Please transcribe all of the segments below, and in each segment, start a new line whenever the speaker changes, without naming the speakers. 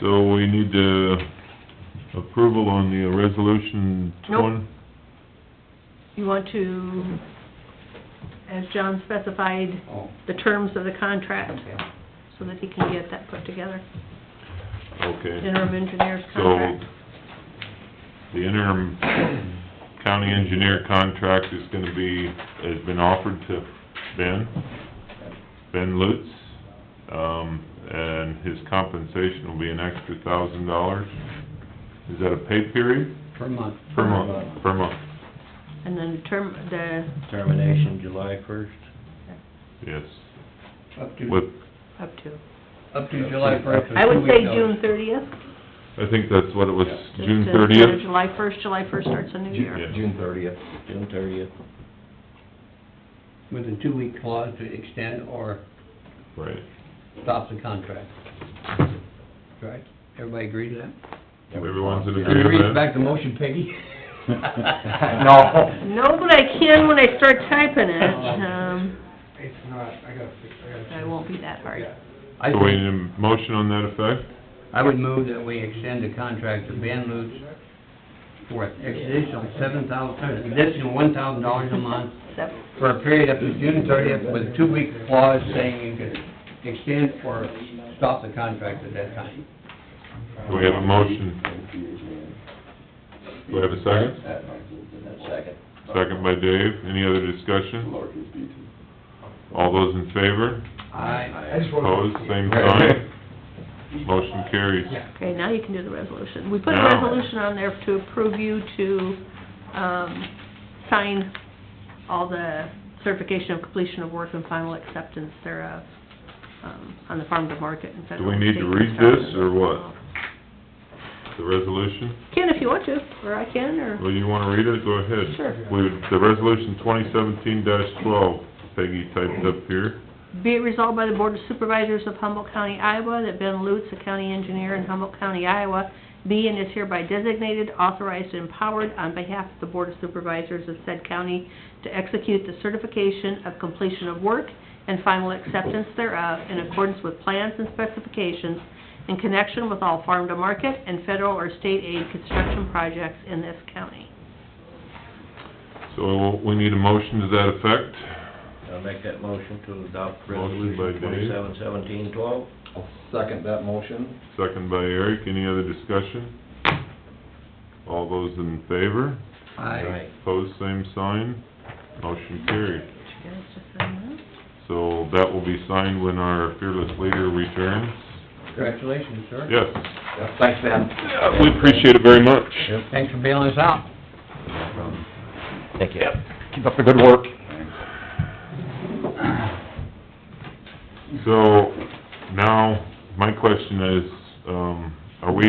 So we need uh approval on the resolution
Nope.
twenty?
You want to, as John specified,
Oh,
the terms of the contract,
okay.
so that he can get that put together,
Okay.
interim engineer's
So,
contract.
the interim county engineer contract is gonna be, has been offered to Ben, Ben Lutz. Um, and his compensation will be an extra thousand dollars. Is that a pay period?
Per month.
Per month, per month,
And then term, the,
Termination July first.
yes.
Uh, Up to,
With,
up to,
up to July first.
I would say June thirtieth.
I think that's what it was,
just
June
to-
thirtieth?
July first, July first starts a new year.
Yeah.
June thirtieth. June thirtieth.
With a two-week clause to extend or
Right.
stop the contract. Right? Everybody agree to that?
Everyone's in
Can you
agreement?
read back the motion, Peggy?
No.
No, but I can when I start typing it, um,
It's not, I gotta fix, I gotta.
I won't be that hard.
Yeah.
I
So we
think,
need a motion on that effect?
I would move that we extend the contract to Ben Lutz for an additional seven thousand, additional one thousand dollars a month
Sep-
for a period up to June thirtieth with a two-week clause saying you could extend or stop the contract at that time.
Do we have a motion? Do we have a second?
Second.
Second by Dave. Any other discussion? All those in favor?
I just wanna-
Opposed, same sign? Motion carries.
Yeah.
Okay, now you can do the resolution. We put a
Now.
resolution on there to approve you to, um, sign all the certification of completion of work and final acceptance thereof, um, on the farm to market and federal.
we
and
need
state
to read
construction.
this, or what? The resolution,
Can if you want to, or I can, or,
well, you wanna read it? Go ahead.
sure.
We, the resolution twenty seventeen twelve, Peggy typed up here.
Be it resolved by the Board of Supervisors of Humboldt County, Iowa, that Ben Lutz, a county engineer in Humboldt County, Iowa, be and is hereby designated, authorized, and empowered on behalf of the Board of Supervisors of said county to execute the certification of completion of work and final acceptance thereof in accordance with plans and specifications in connection with all farm-to-market and federal or state aid construction projects in this county.
So we need a motion to that effect.
I'll make that motion to adopt
Motion by
resolution
Dave.
twenty-seven seventeen twelve.
Second that motion.
Second by Eric. Any other discussion? All those in favor?
Aye.
Pose same sign, motion carried.
Did you guys just sign
So that will be signed when our fearless leader returns.
Congratulations, sir.
Yes.
Thanks, Ben.
We appreciate it very much.
Thanks for bailing us out.
Thank you.
Keep up the good work.
So now, my question is, um, are we,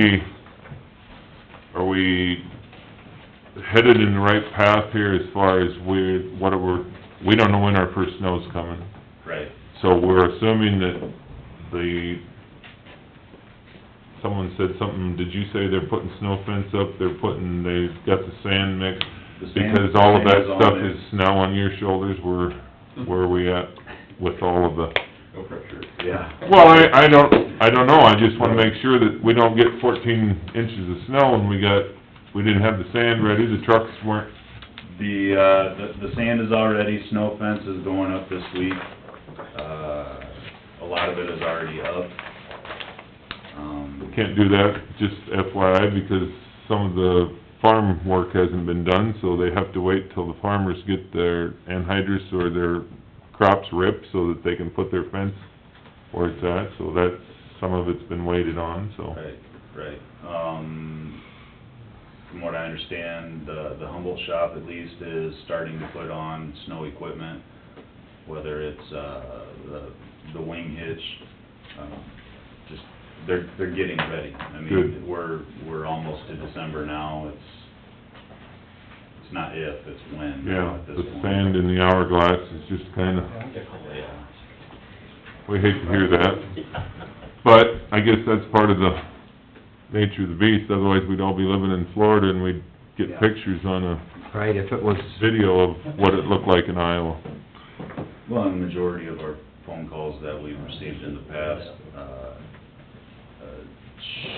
are we headed in the right path here as far as we, what are we, we don't know when our first snow's coming.
Right.
So we're assuming that the, someone said something, did you say they're putting snow fence up, they're putting, they've got the sand mix?
The sand-
Because all of that
sand is on
stuff
there.
is now on your shoulders, where, where are we at with all of the...
No pressure. Yeah.
Well, I, I don't, I don't know, I just wanna make sure that we don't get fourteen inches of snow and we got, we didn't have the sand ready, the trucks weren't,
The, uh, the, the sand is already, snow fence is going up this week. Uh, a lot of it is already up. Um,
can't do that, just FYI, because some of the farm work hasn't been done, so they have to wait till the farmers get their anhydrous or their crops ripped so that they can put their fence where it's at, so that's, some of it's been waited on, so.
Right, right. Um, from what I understand, the, the Humboldt shop at least is starting to put on snow equipment, whether it's, uh, the, the wing hitch, um, just, they're, they're getting ready. I
Good.
mean, we're, we're almost to December now, it's, it's not if, it's when now
Yeah,
at this
the
point.
sand in the hourglass is just kinda,
Yeah.
we hate to hear that. But I guess that's part of the nature of the beast, otherwise we'd all be living in Florida and we'd get
Yeah.
pictures on a
Right, if it was,
video of what it looked like in Iowa.
Well, and the majority of our phone calls that we've received in the past, uh, uh,